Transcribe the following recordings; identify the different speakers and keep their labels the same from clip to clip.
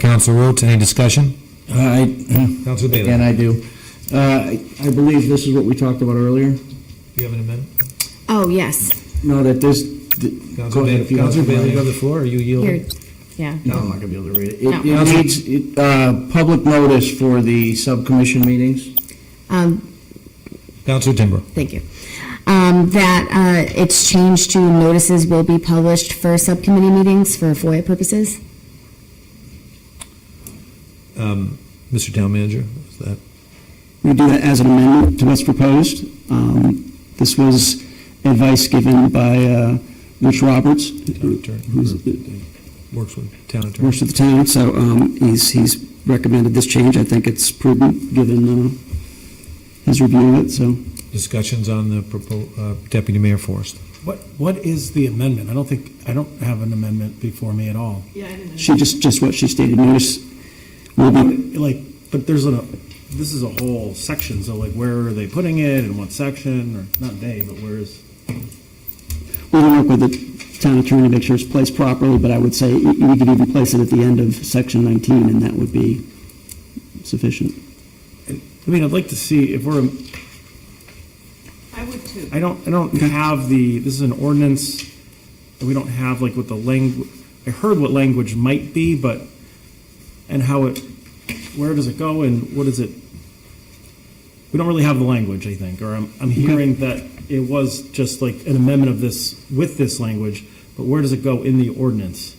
Speaker 1: Council Roots, any discussion?
Speaker 2: I,
Speaker 1: Council
Speaker 2: again, I do. Uh, I I believe this is what we talked about earlier.
Speaker 1: you have an amendment?
Speaker 3: Oh, yes,
Speaker 2: No, that this, th- Go ahead, if you want to-
Speaker 1: the floor, are you
Speaker 3: here, yeah.
Speaker 2: no, I'm not gonna be able to read it.
Speaker 3: No.
Speaker 2: It- It needs, it, uh, public notice for the subcommission meetings.
Speaker 3: Um,
Speaker 1: Council Timber.
Speaker 3: thank you. Um, that, uh, it's changed to notices will be published for subcommittee meetings for FOIA purposes.
Speaker 1: Um, Mr. Town Manager, is that?
Speaker 4: We do that as an amendment to what's proposed. Um, This was advice given by uh, Rich Roberts,
Speaker 1: Town
Speaker 4: who
Speaker 1: attorney,
Speaker 4: who's-
Speaker 1: or Works with town attorney.
Speaker 4: works with the town, so um, he's he's recommended this change. I think it's prudent, given uh, his review of it, so.
Speaker 1: Discussions on the propo- uh, Deputy Mayor Forrest.
Speaker 5: What, what is the amendment? I don't think, I don't have an amendment before me at all.
Speaker 4: She just, just what she stated, notice will be,
Speaker 5: Like, but there's a, this is a whole section, so like, where are they putting it, in what section, or, not they, but where is?
Speaker 4: we'll work with the town attorney to make sure it's placed properly, but I would say you you could even place it at the end of section 19, and that would be sufficient.
Speaker 5: I mean, I'd like to see if we're,
Speaker 6: I would too.
Speaker 5: I don't, I don't have the, this is an ordinance, and we don't have like what the language, I heard what language might be, but, and how it, where does it go, and what is it? We don't really have the language, I think, or I'm, I'm hearing that it was just like an amendment of this, with this language, but where does it go in the ordinance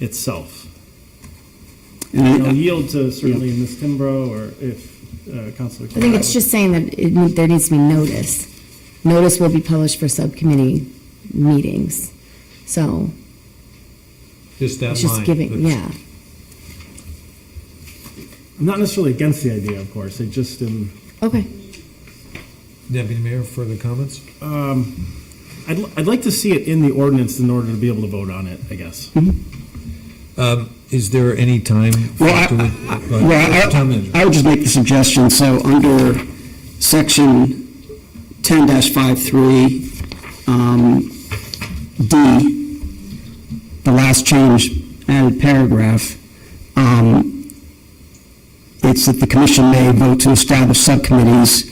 Speaker 5: itself?
Speaker 4: And I-
Speaker 5: And I'll yield to certainly Ms. Timbrow, or if uh, Counselor.
Speaker 3: I think it's just saying that it, need- there needs to be notice. Notice will be published for subcommittee meetings, so
Speaker 1: Just that
Speaker 3: it's just giving, yeah.
Speaker 5: I'm not necessarily against the idea, of course, I just am.
Speaker 3: Okay,
Speaker 1: Deputy Mayor, further comments?
Speaker 5: Um, I'd, li- I'd like to see it in the ordinance in order to be able to vote on it, I guess. Oh,
Speaker 1: Um, Is there any time? for
Speaker 4: Well, I-
Speaker 1: to-
Speaker 4: I-
Speaker 1: Go ahead.
Speaker 4: well,
Speaker 1: Town Manager.
Speaker 4: I- I would just make the suggestion, so under section 10-53, um, D, the last change, added paragraph, um, it's that the commission may vote to establish subcommittees,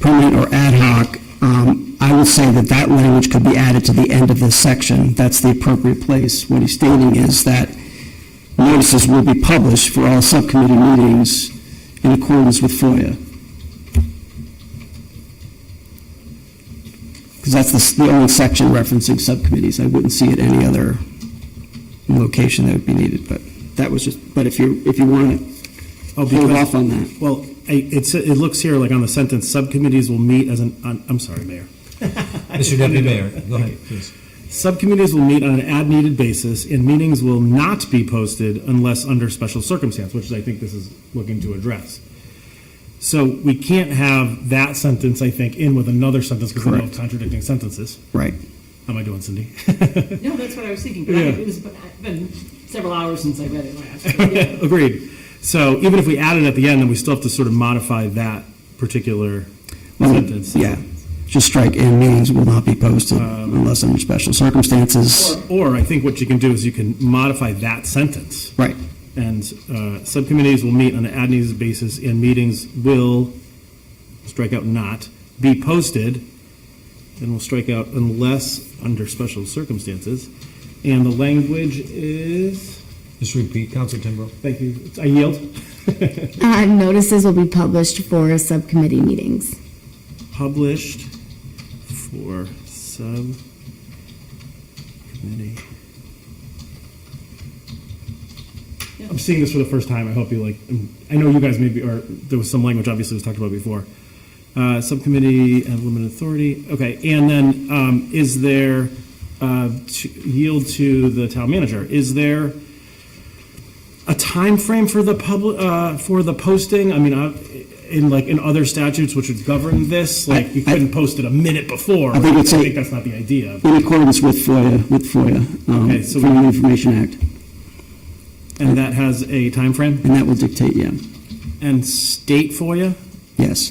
Speaker 4: permanent or ad hoc. Um, I would say that that language could be added to the end of this section. That's the appropriate place. What he's stating is that notices will be published for all subcommittee meetings in accordance with FOIA. Because that's the s- the only section referencing subcommittees. I wouldn't see it any other location that would be needed, but that was just, but if you, if you want to
Speaker 5: Oh,
Speaker 4: hold
Speaker 5: because-
Speaker 4: off on that.
Speaker 5: Well, I- it's, it looks here like on the sentence, subcommittees will meet as an, on- I'm sorry, Mayor.
Speaker 1: Mr. Deputy Mayor, go ahead, please.
Speaker 5: Subcommittees will meet on an ad-needed basis, and meetings will not be posted unless under special circumstance, which is, I think this is looking to address. So we can't have that sentence, I think, in with another sentence because they're both
Speaker 4: Correct.
Speaker 5: contradicting sentences.
Speaker 4: Right.
Speaker 5: How am I doing, Cindy?
Speaker 6: No, that's what I was thinking, but I-
Speaker 5: Yeah.
Speaker 6: it was, but I've been several hours since I read it last. but yeah.
Speaker 5: Agreed. So even if we add it at the end, then we still have to sort of modify that particular
Speaker 4: Well,
Speaker 5: sentence.
Speaker 4: Yeah. Just strike, and meetings will not be posted
Speaker 5: Um,
Speaker 4: unless under special circumstances.
Speaker 5: Or I think what you can do is you can modify that sentence.
Speaker 4: Right.
Speaker 5: And uh, subcommittees will meet on an ad needs basis, and meetings will, strike out not, be posted, and we'll strike out unless under special circumstances. And the language is,
Speaker 1: Just repeat, Council Timbrow.
Speaker 5: thank you, I yield,
Speaker 3: uh, notices will be published for subcommittee meetings.
Speaker 5: published for subcommittee I'm seeing this for the first time. I hope you like. um, I know you guys maybe, or there was some language obviously was talked about before. Uh, subcommittee and limited authority. Okay, and then um, is there uh, to yield to the town manager? Is there a time frame for the public uh, for the posting? I mean, uh, in like in other statutes which would govern this, like you
Speaker 4: I- I-
Speaker 5: couldn't post it a minute before.
Speaker 4: I think it's a-
Speaker 5: that's not the idea.
Speaker 4: In accordance with FOIA, with FOIA, um,
Speaker 5: Okay, so we-
Speaker 4: Freedom of Information Act.
Speaker 5: And that has a time frame
Speaker 4: And that will dictate, yeah.
Speaker 5: and state FOIA.
Speaker 4: Yes.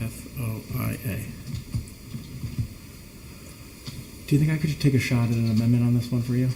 Speaker 5: F O I A. Do you think I could take a shot at an amendment on this one for you?